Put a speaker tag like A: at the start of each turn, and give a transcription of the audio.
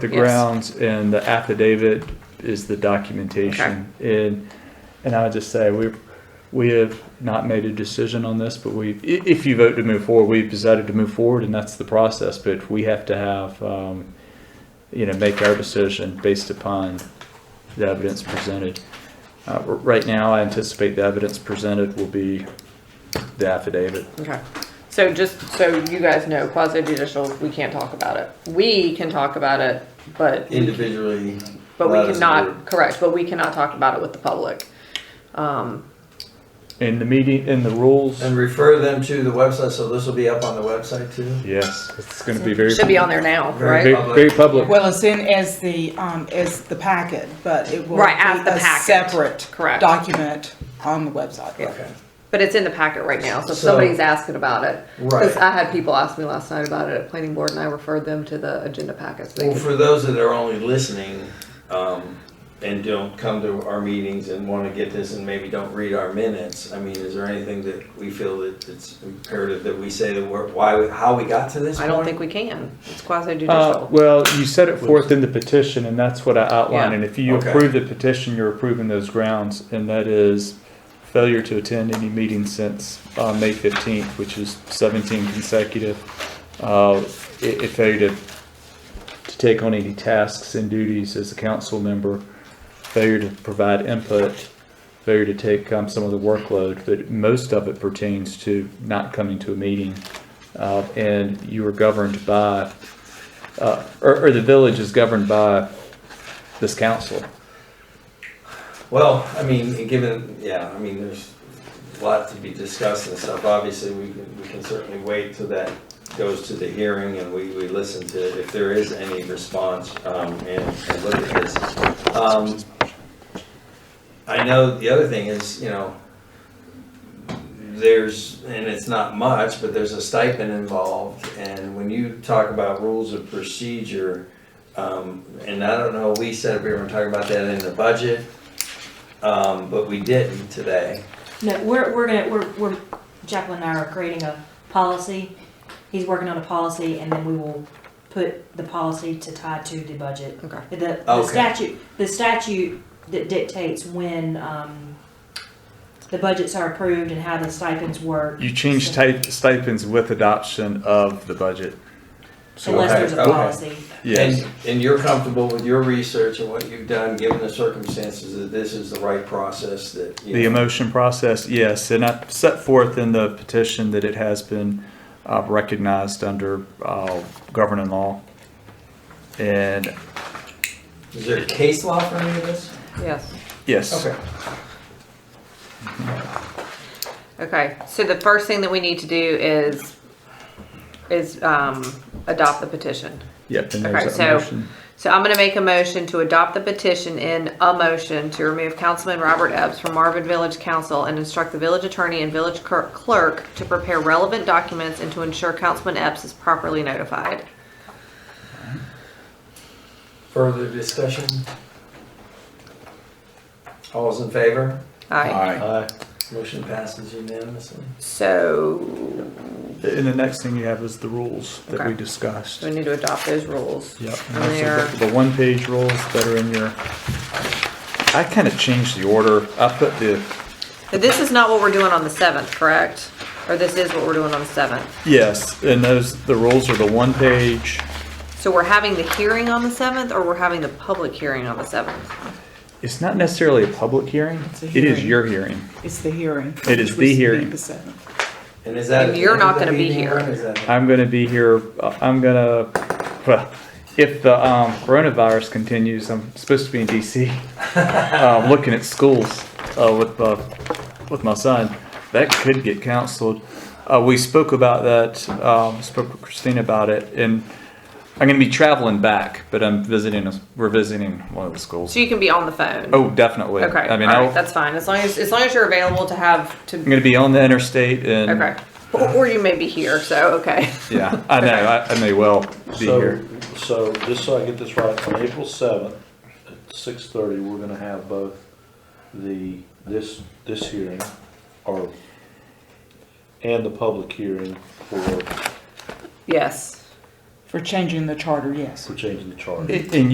A: The
B: Yes.
A: grounds and the affidavit is the documentation. And, and I would just say, we, we have not made a decision on this, but we, i- if you vote to move forward, we've decided to move forward and that's the process, but we have to have, um, you know, make our decision based upon the evidence presented. Uh, r- right now, I anticipate the evidence presented will be the affidavit.
B: Okay. So just so you guys know, quasi judicial, we can't talk about it. We can talk about it, but
C: individually.
B: but
C: not
B: we
C: as a
B: cannot
C: group.
B: correct. But we cannot talk about it with the public. Um,
A: In the meeting, in the rules,
C: And refer them to the website, so this will be up on the website too?
A: yes, it's gonna be very.
B: should be on there now,
C: Very
B: right?
C: good.
A: Very, very public.
D: Well, as soon as the, um, as the packet, but it will.
B: Right,
D: be
B: as the
D: a
B: packet.
D: Separate.
B: Correct.
D: Document on the website.
C: Okay.
B: But it's in the packet right now, so if
C: So-
B: somebody's asking about it, because
C: Right.
B: I had people ask me last night about it at planning board, and I referred them to the agenda packets. They
C: Well,
B: could-
C: for those that are only listening, um, and don't come to our meetings and wanna get this and maybe don't read our minutes, I mean, is there anything that we feel that it's imperative that we say the word, why, how we got to this
B: I
C: point?
B: don't think we can. It's quasi
A: Uh,
B: judicial.
A: well, you set it forth in the petition, and that's what I outlined, and if you
C: Okay.
A: approve the petition, you're approving those grounds, and that is failure to attend any meeting since, uh, May fifteenth, which is seventeen consecutive. Uh, it, it failure to, to take on any tasks and duties as a council member, failure to provide input, failure to take, um, some of the workload, but most of it pertains to not coming to a meeting. Uh, and you are governed by uh, or, or the village is governed by this council.
C: Well, I mean, and given, yeah, I mean, there's a lot to be discussed and stuff. Obviously, we can, we can certainly wait till that goes to the hearing and we, we listen to if there is any response, um, and, and look at this. Um, I know the other thing is, you know, there's, and it's not much, but there's a stipend involved. And when you talk about rules of procedure, um, and I don't know, we said we were gonna talk about that in the budget. Um, but we didn't today.
E: No, we're, we're gonna, we're, we're, Jacqueline and I are creating a policy. He's working on a policy and then we will put the policy to tie to the budget.
B: Okay.
E: The, the
C: Okay.
E: statute, the statute that dictates when, um, the budgets are approved and how the stipends work.
A: You change type stipends with adoption of the budget.
E: Unless there's a
C: Okay.
E: policy.
A: Yes.
C: And, and you're comfortable with your research and what you've done, given the circumstances, that this is the right process that, you
A: The
C: know.
A: emotion process, yes, and I set forth in the petition that it has been uh, recognized under uh, governing law. And
C: Is there case law for any of this?
B: Yes.
A: yes,
C: Okay.
B: Okay, so the first thing that we need to do is, is um, adopt the petition.
A: yep. And
B: Okay,
A: there's that
B: so-
A: motion.
B: So I'm gonna make a motion to adopt the petition in a motion to remove Councilman Robert Epps from Marvin Village Council and instruct the village attorney and village cur- clerk to prepare relevant documents and to ensure Councilman Epps is properly notified.
C: Further discussion? All's in favor?
B: Aye.
C: Aye. Motion passes unanimously.
B: So,
A: And the next thing you have is the rules that we
B: Okay.
A: discussed.
B: we need to adopt those rules.
A: Yep, and
B: And
A: those
B: they
A: are
B: are,
A: the the one-page rules that are in your, I kind of changed the order. I put the
B: this is not what we're doing on the seventh, correct? Or this is what we're doing on the seventh?
A: Yes, and those, the rules are the one page,
B: So we're having the hearing on the seventh, or we're having the public hearing on the seventh?
A: it's not necessarily a public hearing,
D: It's a
A: it is
D: hearing.
A: your hearing.
D: It's the hearing.
A: It is
D: which
A: the
D: was
A: hearing.
D: the seventh.
C: And is that?
B: And you're not
C: is that
B: gonna be
C: meeting
B: here.
C: or is that-
A: I'm gonna be here, uh, I'm gonna, well, if the um, coronavirus continues, I'm supposed to be in DC, uh, looking at schools, uh, with, uh, with my son. That could get canceled. Uh, we spoke about that, um, spoke with Christine about it, and I'm gonna be traveling back, but I'm visiting, a- we're visiting one of the schools.
B: So you can be on the phone?
A: Oh, definitely.
B: Okay,
A: I
B: all
A: mean, I'll,
B: right, that's fine, as long as, as long as you're available to have,
A: I'm
B: to,
A: going to be on the interstate and
B: okay. Or, or you may be here, so, okay.
A: yeah, I know I, I may well be
F: So-
A: here.
F: So, just so I get this right, on April seventh, at six thirty, we're gonna have both the, this, this hearing, or, and the public hearing for,
B: Yes,
G: for changing the charter, yes.
D: for changing the charter.
A: And